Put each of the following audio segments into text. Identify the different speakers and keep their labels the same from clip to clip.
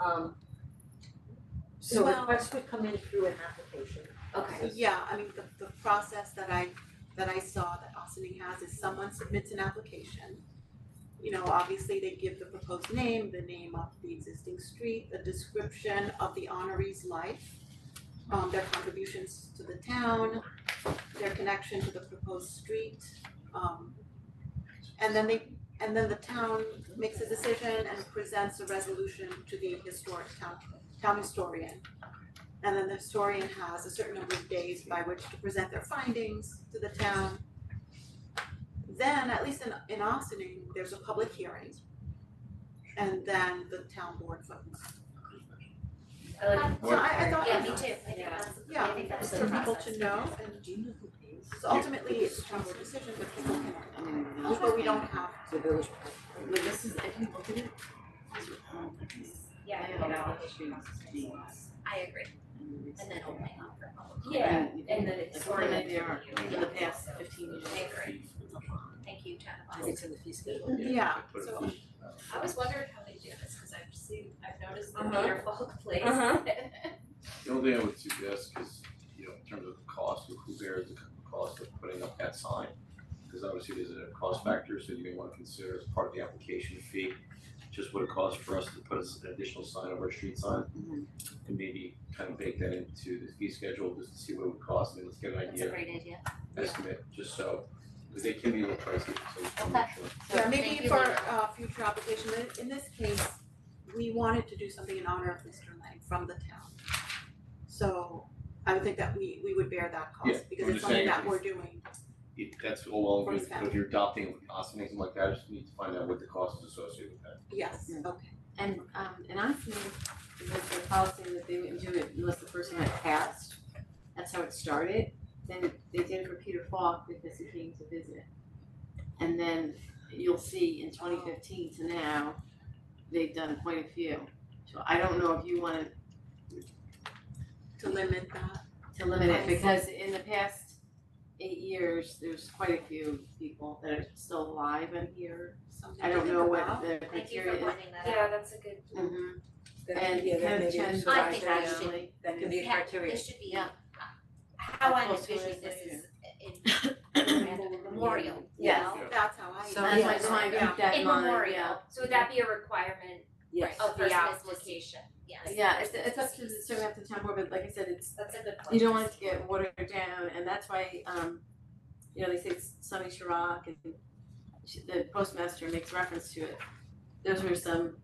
Speaker 1: Um. So
Speaker 2: Well-
Speaker 1: requests would come in through an application.
Speaker 2: Okay, yeah, I mean, the the process that I that I saw that Austining has is someone submits an application. You know, obviously they give the proposed name, the name of the existing street, the description of the honoree's life, um, their contributions to the town, their connection to the proposed street, um, and then they, and then the town makes a decision and presents a resolution to the historic town, town historian. And then the historian has a certain number of days by which to present their findings to the town. Then, at least in in Austining, there's a public hearing. And then the town board votes.
Speaker 3: I like,
Speaker 2: So I I thought,
Speaker 3: yeah, me too, I think
Speaker 4: Yeah.
Speaker 3: that's,
Speaker 2: yeah,
Speaker 3: I think that's the
Speaker 2: for people
Speaker 3: process.
Speaker 2: to know and
Speaker 1: Do you know who pays?
Speaker 2: so ultimately it's a town's decision, but people can, but we don't have,
Speaker 1: The village. But this is, I think, look at it.
Speaker 3: Yeah, you know, I agree, and then opening up for public.
Speaker 4: Yeah,
Speaker 3: And then it's.
Speaker 1: Like, what an idea.
Speaker 3: Yeah.
Speaker 1: In the past fifteen years.
Speaker 3: I agree. Thank you, Jen.
Speaker 1: It's in the fee schedule.
Speaker 2: yeah,
Speaker 5: Put it
Speaker 2: so
Speaker 5: in.
Speaker 4: I was wondering how they do this, cause I've seen, I've noticed the
Speaker 3: Uh-huh.
Speaker 4: Norfolk place.
Speaker 3: Uh-huh.
Speaker 5: The only thing I would suggest is, you know, in terms of cost, who bears the cost of putting up that sign? Because obviously there's a cost factor, so you may want to consider as part of the application fee, just what it costs for us to put us an additional sign over a street sign.
Speaker 3: Mm-hmm.
Speaker 5: And maybe kind of bake that into the fee schedule, just to see what it would cost, and let's get an
Speaker 3: That's a
Speaker 5: idea,
Speaker 3: great idea.
Speaker 5: estimate, just so, because they can be a little pricey, so we just wanna make sure.
Speaker 2: yeah,
Speaker 3: Thank
Speaker 2: maybe
Speaker 3: you,
Speaker 2: for
Speaker 3: Laura.
Speaker 2: uh future application, but in this case, we wanted to do something in honor of Mr. Lang from the town. So I would think that we we would bear that
Speaker 5: Yeah,
Speaker 2: cost because
Speaker 5: I'm
Speaker 2: it's
Speaker 5: just
Speaker 2: something
Speaker 5: saying
Speaker 2: that
Speaker 5: if-
Speaker 2: we're doing,
Speaker 5: It, that's all well
Speaker 2: For
Speaker 5: and
Speaker 2: his
Speaker 5: good, but if you're adopting Austin, anything like that, I just need to find out what the cost is associated with that.
Speaker 2: yes,
Speaker 6: Yeah.
Speaker 2: okay,
Speaker 6: And um and I think it was the policy that they wouldn't do it unless the person had passed. That's how it started. Then they did it for Peter Falk because he came to visit. And then you'll see in twenty fifteen to now, they've done quite a few. So I don't know if you wanna
Speaker 2: to limit that,
Speaker 6: to limit
Speaker 2: I
Speaker 6: it
Speaker 2: see.
Speaker 6: because in the past eight years, there's quite a few people that are still alive and here.
Speaker 2: something
Speaker 6: I
Speaker 2: to
Speaker 6: don't
Speaker 2: think
Speaker 6: know
Speaker 2: about.
Speaker 6: what the
Speaker 3: Thank you for
Speaker 6: criteria is.
Speaker 3: pointing that
Speaker 4: Yeah,
Speaker 3: out.
Speaker 4: that's a good,
Speaker 6: Mhm.
Speaker 4: Good
Speaker 6: And kind of change the
Speaker 3: I think that
Speaker 6: criteria.
Speaker 3: should-
Speaker 1: That can be a
Speaker 3: Yeah,
Speaker 1: criteria.
Speaker 3: This should be, uh,
Speaker 6: Yeah.
Speaker 3: how I
Speaker 6: I'll post
Speaker 3: envision
Speaker 6: it
Speaker 3: this is
Speaker 6: later.
Speaker 3: in, in memorial, you
Speaker 4: Yes.
Speaker 3: know?
Speaker 2: That's how I.
Speaker 6: So
Speaker 3: Yeah.
Speaker 6: that's why I just wanna
Speaker 2: Yeah.
Speaker 6: keep that in
Speaker 3: In
Speaker 6: mind,
Speaker 3: memorial,
Speaker 6: yeah.
Speaker 4: so would that be a requirement
Speaker 1: Yes.
Speaker 3: a
Speaker 4: of the
Speaker 3: person is
Speaker 4: application? Yes,
Speaker 6: Yeah, it's it's up to the serving up to town board, but like I said, it's,
Speaker 4: that's a good point.
Speaker 6: you don't want it to get watered down, and that's why, um, you know, they say Sunny Chirac and she- the postmaster makes reference to it. Those were some,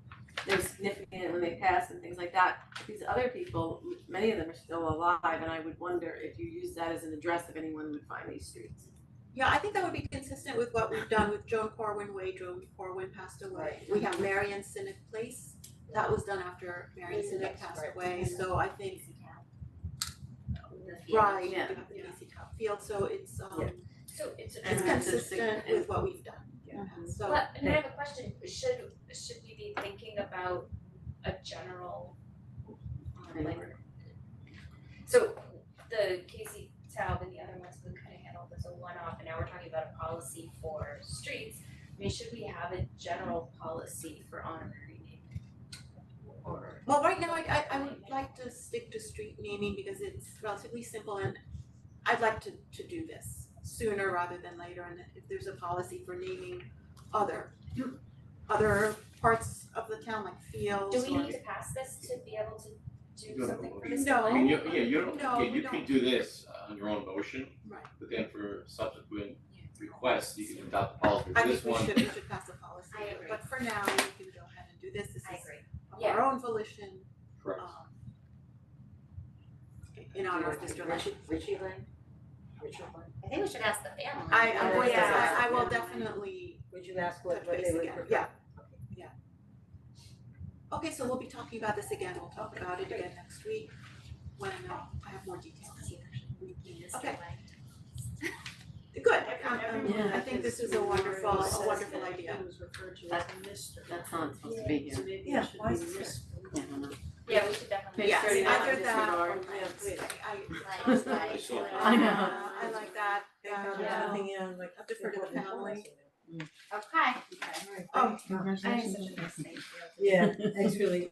Speaker 6: they were significant when they passed and things like that. These other people, m- many of them are still alive, and I would wonder if you use that as an address if anyone would find these streets.
Speaker 2: Yeah, I think that would be consistent with what we've done with Joan Corwin Way, Joan Corwin passed away. We have Marion Sinnet Place, that was done after Marion Sinnet passed away, so I think, right, we
Speaker 6: Yeah.
Speaker 2: have the BC Top Field, so it's um,
Speaker 4: So it's a.
Speaker 2: it's
Speaker 6: And that's a
Speaker 2: consistent
Speaker 6: sig-
Speaker 2: with what we've done.
Speaker 1: Yeah.
Speaker 2: So,
Speaker 4: Mm-hmm. Well, and I have a question, should, should we be thinking about a general, um, like, so the Casey Taub and the other ones, Blue Cunningham, all those a one-off, and now we're talking about a policy for streets. I mean, should we have a general policy for honorary naming? Or,
Speaker 2: well, right now, I I I would like to stick to street naming because it's relatively simple and I'd like to to do this sooner rather than later, and if there's a policy for naming other other parts of the town, like fields
Speaker 4: do we
Speaker 2: or-
Speaker 4: need to pass this to be able to do
Speaker 5: No,
Speaker 4: something for
Speaker 5: we-
Speaker 4: this?
Speaker 2: No.
Speaker 5: I mean, you, yeah, you don't,
Speaker 2: No,
Speaker 5: yeah,
Speaker 2: we
Speaker 5: you
Speaker 2: don't.
Speaker 5: can do this on your own motion.
Speaker 2: Right.
Speaker 5: But then for subsequent requests, you can adopt the policy
Speaker 2: I
Speaker 5: for
Speaker 2: think
Speaker 5: this
Speaker 2: we
Speaker 5: one.
Speaker 2: should, we should pass a policy,
Speaker 4: I agree.
Speaker 2: but for now, we can go ahead and do this, this
Speaker 4: I
Speaker 2: is
Speaker 4: agree,
Speaker 2: of our own volition,
Speaker 5: Correct.
Speaker 2: um. In honor of Mr. Lynch,
Speaker 1: Richie Lane? Richard Lane?
Speaker 3: I think we should ask the family.
Speaker 2: I I
Speaker 6: Yeah.
Speaker 2: would,
Speaker 6: Yeah.
Speaker 2: I I will definitely
Speaker 1: Would you ask what
Speaker 2: touch
Speaker 1: what
Speaker 2: base
Speaker 1: they would
Speaker 2: again,
Speaker 1: prefer?
Speaker 2: yeah, yeah. Okay, so we'll be talking about this again, we'll talk about it again next week, when uh, I have more details. Okay. Good, um,
Speaker 6: everyone
Speaker 2: I think this is a wonderful, a wonderful idea.
Speaker 6: That's not supposed to be here.
Speaker 1: Yeah, why is it?
Speaker 6: Yeah, I don't know.
Speaker 4: yeah, we should definitely.
Speaker 6: Page
Speaker 2: Yes,
Speaker 6: thirty nine,
Speaker 2: either that or
Speaker 6: disregard.
Speaker 2: let's- I
Speaker 3: Like, like,
Speaker 5: Sure.
Speaker 3: like-
Speaker 6: I know.
Speaker 2: Uh, I like that,
Speaker 4: Yeah.
Speaker 2: yeah,
Speaker 1: Nothing in like.
Speaker 2: I'll defer to the family.
Speaker 3: Okay.
Speaker 1: All right,
Speaker 2: Oh,
Speaker 1: thank you. Um, Yeah, thanks really,